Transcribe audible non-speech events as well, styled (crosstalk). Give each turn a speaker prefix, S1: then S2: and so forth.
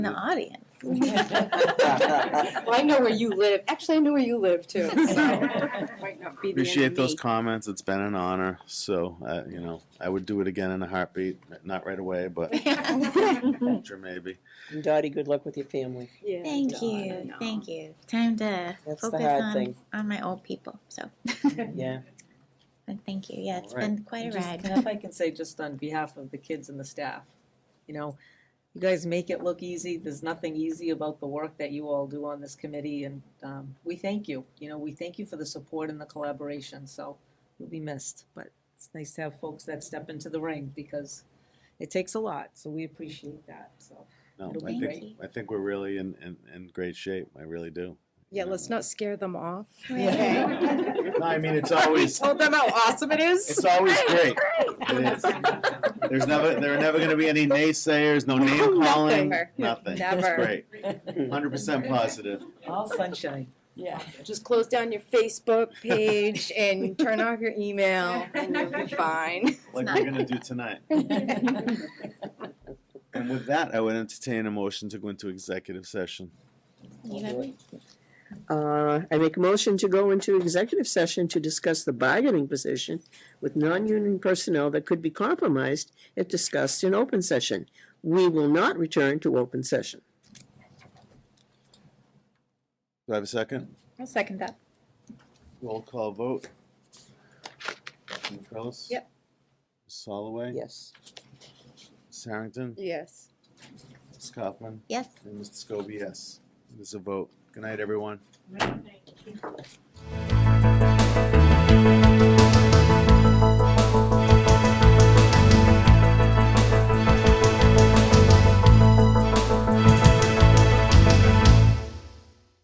S1: in the
S2: (laughs)
S1: audience.
S3: (laughs)
S4: Well, I know where you live. Actually, I know where you live (laughs) too. so might not be the end of
S5: Appreciate those
S4: me.
S5: comments. It's been an honor. So, uh, you know, I would do it again in a heartbeat. Not right away, but (laughs)
S1: (laughs)
S5: future maybe.
S2: And Dottie, good luck with your family.
S4: Yeah,
S1: Thank
S4: Donna,
S1: you,
S4: no.
S1: thank you. It's Time to
S2: That's the
S1: focus
S2: hard
S1: on,
S2: thing.
S1: on my old people, so,
S2: Yeah.
S1: and thank you, yeah, it's
S5: All right.
S1: been quite a
S3: Just-
S1: ride. (laughs)
S3: and If I can say, just on behalf of the kids and the staff, you know, you guys make it look easy. There's nothing easy about the work that you all do on this committee, and um, we thank you. You know, we thank you for the support and the collaboration, so you'll be missed. But it's nice to have folks that step into the ring because it takes a lot, so we appreciate that, so.
S5: No,
S3: It'll
S5: I
S1: be
S5: think,
S1: great.
S5: I think we're really in, in, in great shape. I really do.
S4: Yeah, let's not scare them off.
S1: Right.
S5: No, I mean, it's always,
S1: Oh,
S4: Told them how awesome it is.
S5: it's always
S1: (laughs)
S5: great. It is. There's never, there are never going to be any naysayers,
S1: (laughs)
S5: no name calling,
S4: Never.
S5: nothing.
S1: Never.
S5: It's great.
S1: (laughs)
S5: Hundred percent positive.
S3: (laughs) All sunshine. (laughs)
S4: Yeah. Just close down your Facebook page and turn off your email, and you'll be fine.
S5: like
S1: not-
S5: we're gonna do tonight. And with that, I would entertain a motion to go into executive session.
S1: You know,
S2: Uh, I make a motion to go into executive session to discuss the bargaining position with non-union personnel that could be compromised if discussed in open session. We will not return to open session.
S5: Do I have a second?
S1: I'll second that.
S5: Roll call vote. Ms. Curlis?
S4: Yep.
S5: Ms. Holloway?
S2: Yes.
S5: Ms. Harrington?
S4: Yes.
S5: Ms. Kaufman?
S1: Yes.
S5: And Mr. Scobie, yes. There's a vote. Good night, everyone.